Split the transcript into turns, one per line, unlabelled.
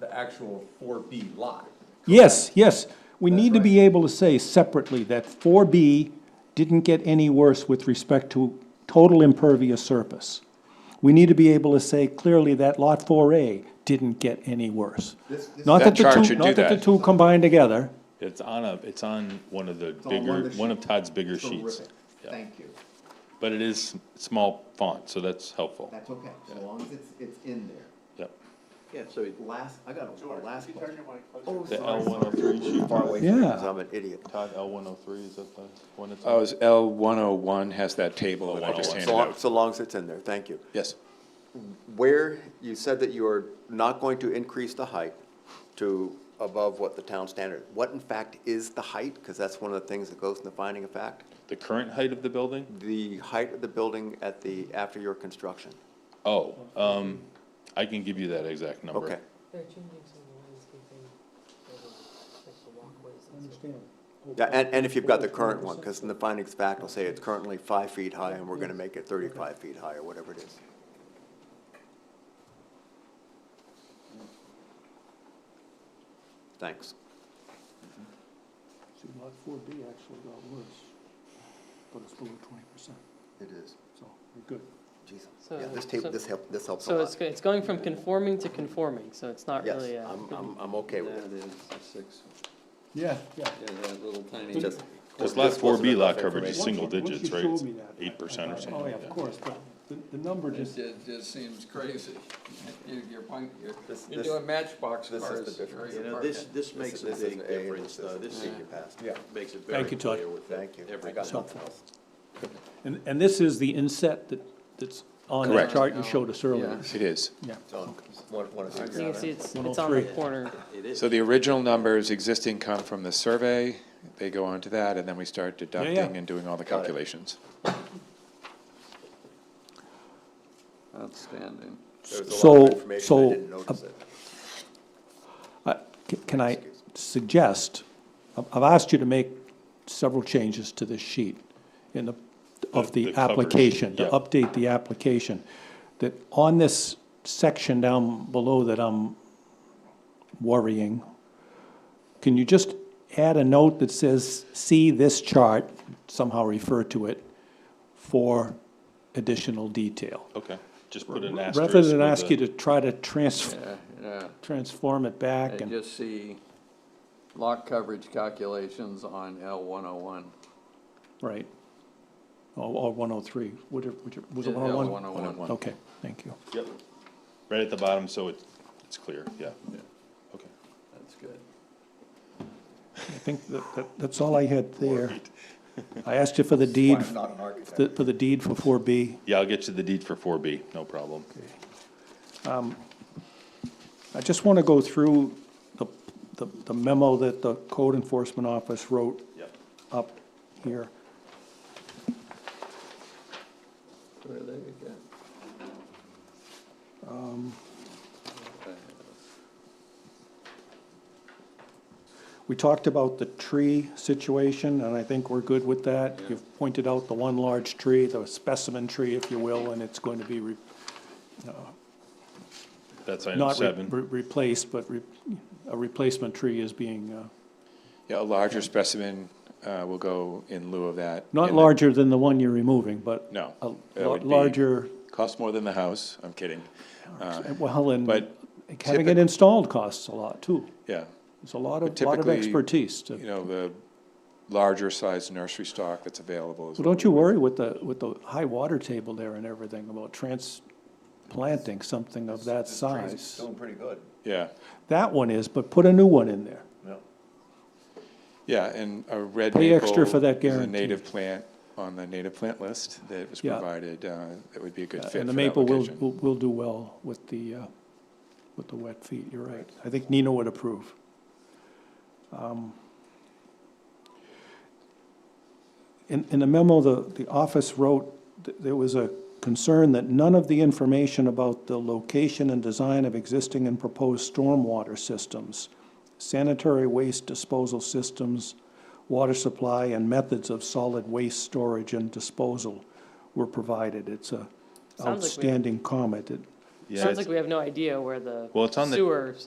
the actual four B lot.
Yes, yes, we need to be able to say separately that four B didn't get any worse with respect to total impervious surface. We need to be able to say clearly that lot four A didn't get any worse. Not that
That
the
chart
two,
should do
not that the
that.
two combined together,
It's on a, it's on one of the
on one of
bigger,
the
one of
sheets.
Todd's bigger sheets.
Terrific.
Yeah.
Thank you.
But it is small font, so that's helpful.
That's okay, so long as it's, it's in there.
Yep.
Yeah, so
Last, I got a- a last question. Oh,
The
sorry,
L one oh
sorry.
three sheet,
far
Todd,
away from it, 'cause
Yeah.
I'm an idiot.
L one oh three, is that the one that's?
Oh, it's L one oh one has that table that I just
101.
handed
So long,
out.
so long as it's in there, thank you.
Yes.
Where, you said that you are not going to increase the height to above what the town standard, what in fact is the height? Because that's one of the things that goes in the finding of fact.
The current height of the building?
The height of the building at the, after your construction.
Oh, um, I can give you that exact number.
Okay,
They're changing some of the landscaping, like the walkways and stuff.
yeah, and, and if you've got the current one, because in the findings of fact, will say it's currently five feet high and we're gonna make it thirty-five feet high or whatever it is. Thanks.
See, lot four B actually got worse, but it's below twenty percent,
It is.
so we're good.
Jesus.
So-
Yeah, this tape,
Uh, so-
this help, this helps a
So it's,
lot.
go- it's going from conforming to conforming, so it's not
Yes,
really, uh,
I'm, I'm, I'm okay with it.
is a six,
Yeah, yeah.
yeah, that little tiny.
Just-
Cause
this
lot four
wasn't
B
enough
lot coverage is
information.
single
Once you- once
digits,
you
right?
showed me that, I-
Eight percent
I
or
thought,
something
Oh, yeah,
like
of
that.
course, but the, the number just,
It just seems crazy. You- You're, punk- you're,
This-
you're
this-
doing matchbox
this is the
cars.
difference.
You know,
this-
this,
This makes a big difference, though. This is your past. Yeah.
makes it
thank you, Todd.
Thank you. I got nothing else.
And, and this is the inset that, that's on that
Correct.
chart you showed us earlier.
It is.
So, one, one of
you
these.
can see it's, it's on the
103.
corner.
So the original numbers existing come from the survey, they go on to that, and then we start deducting and doing all the
Got it.
calculations.
outstanding.
There was a lot
So-
of information, I
so, um,
didn't notice it.
Uh, c- Can I suggest, I've I've asked you to make several changes to this sheet in the, of
The- the
the
cover sheet,
application, to
yeah.
update the application, that on this section down below that I'm worrying, can you just add a note that says, see this chart, somehow refer to it, for additional detail?
Okay, just put an asterisk.
Rather than
with
ask
the-
you to try to trans,
Yeah, yeah.
transform it
uh, I
back and.
just see lot coverage calculations on L one oh one.
Right. Or, or one oh three, would it, would it, was it one oh one?
L one oh one.
Okay, thank you.
Yep, right at the bottom, so it's, it's clear, yeah. Okay.
That's good.
I think that, that, that's all I had there. I asked you for the deed,
I'm not an architect.
the- for the deed for four B.
Yeah, I'll get you the deed for four B, no problem.
I just want to go through the, the the memo that the code enforcement office wrote
Yep.
up here.
Where they get-
Um, We talked about the tree situation, and I think we're good with that. You've pointed out the one large tree, the specimen tree, if you will, and it's going to be re-
That's item
not re-
seven.
re- replaced, but re- a replacement tree is being, uh,
Yeah, a larger specimen, uh, will go in lieu of that.
not
in the-
larger than the one you're removing, but.
No,
a
that
lot
would be-
Larger,
Costs more than the house, I'm kidding.
well, and
Uh, but
having it
typic-
installed costs a lot too.
Yeah,
It's a lot
But
of, lot of
typically,
expertise to.
you know, the larger sized nursery stock that's available is.
Well,
what
don't
we
you
would-
worry with the, with the high water table there and everything about transplanting something of that size.
Doing pretty good,
Yeah,
That one is, but put a new one in there.
yeah.
yeah, and a red maple.
Pay extra for that
is a
guarantee.
native plant on the native plant list that was
Yeah.
provided, uh, that would be a good fit
And the
for that
maple will,
location.
will will do well with the, uh, with the wet feet, you're right. I think Nina would approve. Um, In, in the memo, the, the office wrote, th- there was a concern that none of the information about the location and design of existing and proposed stormwater systems, sanitary waste disposal systems, water supply, and methods of solid waste storage and disposal were provided. It's a
Sounds like we-
outstanding comment. It-
Yeah,
Sounds
it's-
like we have no idea where the
Well, it's on the-
sewer